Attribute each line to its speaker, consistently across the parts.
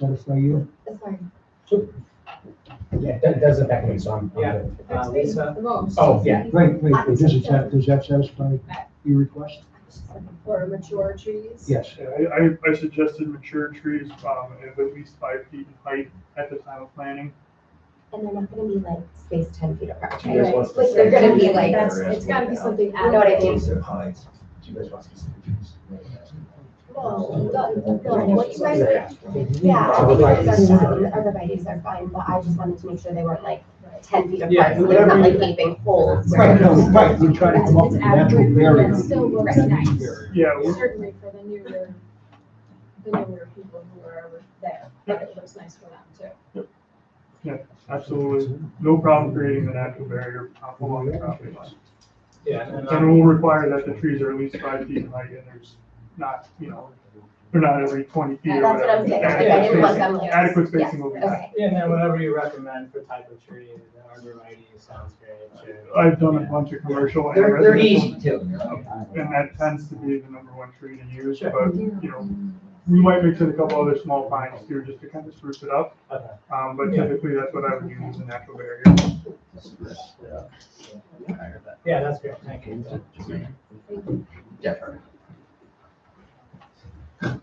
Speaker 1: let us know you.
Speaker 2: That's fine.
Speaker 3: Yeah, that, that's the back one, so I'm. I'm
Speaker 4: Yeah.
Speaker 3: good.
Speaker 4: Uh, Lisa,
Speaker 2: Remote.
Speaker 3: Oh, yeah.
Speaker 1: Great, great. Does this, sat- does that satisfy your request?
Speaker 2: For mature trees.
Speaker 1: Yes.
Speaker 5: Yeah, I, I, I suggested mature trees, um, of at least five feet in height at the time of planting.
Speaker 6: And they're not gonna be like spaced ten feet apart,
Speaker 3: Do you guys
Speaker 6: right?
Speaker 3: want
Speaker 2: Like, they're
Speaker 3: specific-
Speaker 2: gonna be
Speaker 6: Like,
Speaker 2: like,
Speaker 6: that's-
Speaker 2: it's gotta be something.
Speaker 6: I know what I mean.
Speaker 3: Case of heights. Do you guys want specific trees?
Speaker 2: No, no, no,
Speaker 6: No, what you guys- Yeah,
Speaker 3: Yeah.
Speaker 6: arborvitae's are fine, but I just wanted to make sure they weren't like
Speaker 2: Right.
Speaker 6: ten feet apart,
Speaker 4: Yeah,
Speaker 6: so they're not
Speaker 4: whatever
Speaker 6: like
Speaker 4: you-
Speaker 6: gaping holes.
Speaker 1: Right, no, right, we try to
Speaker 2: That's-
Speaker 1: come up
Speaker 2: it's
Speaker 1: with a natural
Speaker 2: adequate, but
Speaker 1: barrier.
Speaker 2: it still looks
Speaker 1: Natural
Speaker 2: nice.
Speaker 1: barrier.
Speaker 5: Yeah, we-
Speaker 2: Certainly for the newer, the newer people who are over there, but it looks nice for them too.
Speaker 5: absolutely. No problem creating a natural barrier um, along the property line.
Speaker 4: yeah, and um,
Speaker 5: And
Speaker 4: I'm,
Speaker 5: we'll require that the trees are at least five feet in height and there's not, you know, they're not every twenty feet
Speaker 6: Yeah,
Speaker 5: or
Speaker 6: That's what I'm
Speaker 5: whatever.
Speaker 6: saying,
Speaker 4: Yeah,
Speaker 6: like,
Speaker 5: Adequate
Speaker 6: I didn't want them
Speaker 5: spacing-
Speaker 6: like.
Speaker 5: Adequate spacing
Speaker 6: Yeah,
Speaker 5: will be
Speaker 6: okay.
Speaker 4: yeah, and then whatever you recommend for type of tree, the arborvitae sounds great, too.
Speaker 5: I've done a bunch of commercial and
Speaker 7: They're, they're easy
Speaker 5: residential,
Speaker 7: too.
Speaker 5: and that tends to be the number one tree to use,
Speaker 4: Sure.
Speaker 5: but, you know, we might mix in a couple other small pines too, just to kind of spruce it up,
Speaker 4: Okay.
Speaker 5: um, but
Speaker 3: Yeah.
Speaker 5: typically that's what I would use as a natural barrier.
Speaker 4: Yeah, that's great, thank you.
Speaker 7: Yeah, perfect.
Speaker 1: Um,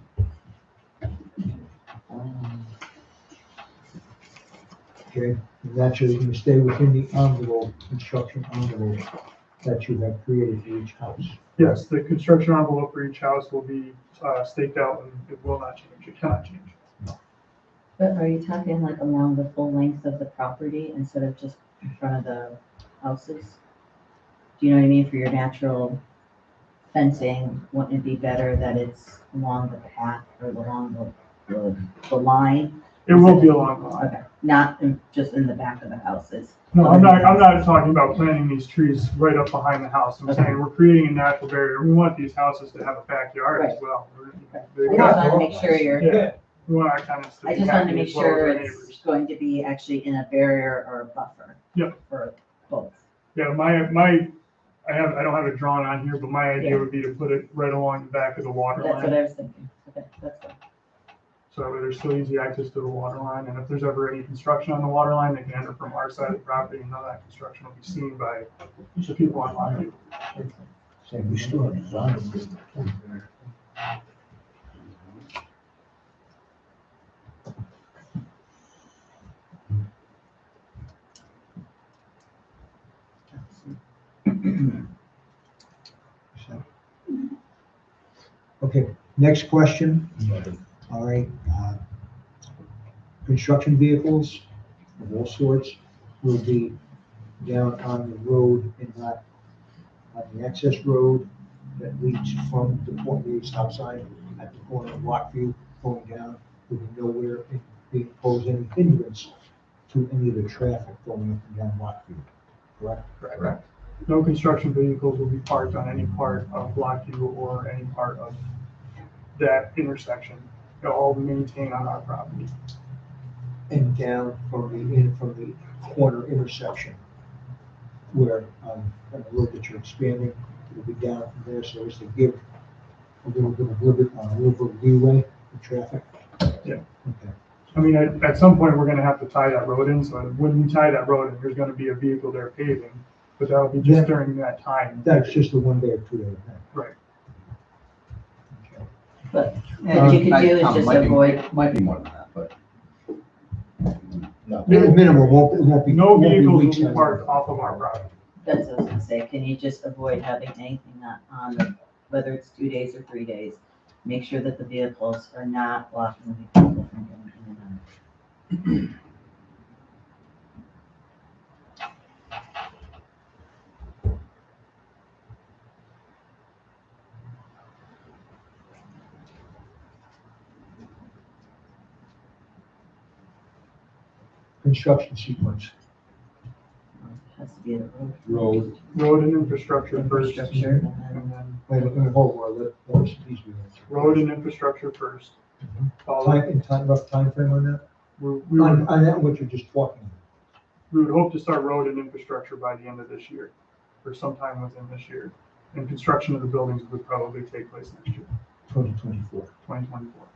Speaker 1: Okay, and that's you're gonna stay within the envelope, construction envelope that you have created for each house.
Speaker 5: Yes, the construction envelope for each house will be, uh, staked out and it will not change, it cannot change.
Speaker 8: But are you talking like along the full length of the property instead of just in front of the houses? Do you know what I mean? For your natural fencing, wouldn't it be better that it's along the path or along the, the, the line?
Speaker 5: It will be along the line.
Speaker 8: Okay, not in, just in the back of the houses.
Speaker 5: No, I'm not, I'm not talking about planting these trees right up behind the house. I'm saying we're creating a natural barrier. We want these houses to have a backyard as well. We're-
Speaker 8: I
Speaker 5: they
Speaker 8: just
Speaker 5: got-
Speaker 8: wanted to make sure you're,
Speaker 5: Yeah, we want our tenants to
Speaker 8: I
Speaker 5: be
Speaker 8: just wanted to
Speaker 5: happy
Speaker 8: make
Speaker 5: as well as
Speaker 8: sure
Speaker 5: their
Speaker 8: it's
Speaker 5: neighbors.
Speaker 8: going to be actually in a barrier or a buffer.
Speaker 5: Yep.
Speaker 8: For both.
Speaker 5: Yeah, my, my, I have, I don't have it drawn on here, but my idea would be to put it right along the back of the water
Speaker 8: That's what
Speaker 5: line.
Speaker 8: I was thinking. Okay, that's good.
Speaker 5: So that way there's still easy access to the water line. And if there's ever any construction on the water line, they can enter from our side of the property and none of that construction will be seen by the people on Lot Two.
Speaker 1: So we still have a lot of business. So. Okay, next question. All right, uh, construction vehicles of all sorts will be down on the road and not on the access road that leads from the Port Reeves stop sign at the corner of Lockview going down, will be nowhere in- being posed any hindrance to any of the traffic going up and down Lockview, correct?
Speaker 7: Correct.
Speaker 5: No construction vehicles will be parked on any part of Block U or any part of that intersection. They'll all be maintained on our property.
Speaker 1: And down from the, in from the corner intersection where, um, on the road that you're expanding, it'll be down from there, so as to give a little bit of liberty, uh, a little bit of leeway for traffic.
Speaker 5: Yeah.
Speaker 1: Okay,
Speaker 5: I mean, at, at some point, we're gonna have to tie that road in, so when we tie that road in, there's gonna be a vehicle there paving, but that'll be
Speaker 1: Yeah.
Speaker 5: just during that time.
Speaker 1: that's just a one day or two day event.
Speaker 5: Right.
Speaker 1: Okay.
Speaker 8: What you could do is
Speaker 7: Um,
Speaker 8: just
Speaker 7: might be-
Speaker 8: avoid
Speaker 7: Might be more than that, but. No.
Speaker 1: Min- Minimal, won't, it won't be.
Speaker 5: No
Speaker 1: won't be
Speaker 5: vehicles
Speaker 1: weeks
Speaker 5: will
Speaker 1: on
Speaker 5: be
Speaker 1: it.
Speaker 5: parked off of our property.
Speaker 8: That's what I was gonna say, can you just avoid having anything not on, the- whether it's two days or three days? Make sure that the vehicles are not blocking the people from going in and out.
Speaker 1: Construction sequence.
Speaker 8: It Has to be the road.
Speaker 1: Road.
Speaker 5: Road and infrastructure first, and
Speaker 8: Infrastructure, and then
Speaker 5: then
Speaker 1: Mm-hmm. Wait, wait, wait, hold on, let, let us, please. we answer.
Speaker 5: road and infrastructure first. Followed,
Speaker 1: Time, in time, rough timeframe on that?
Speaker 5: we, we would,
Speaker 1: On, on that, what you're just talking.
Speaker 5: we would hope to start road and infrastructure by the end of this year, or sometime within this year. And construction of the buildings would probably take place next year,
Speaker 1: Twenty twenty-four.
Speaker 5: twenty twenty-four.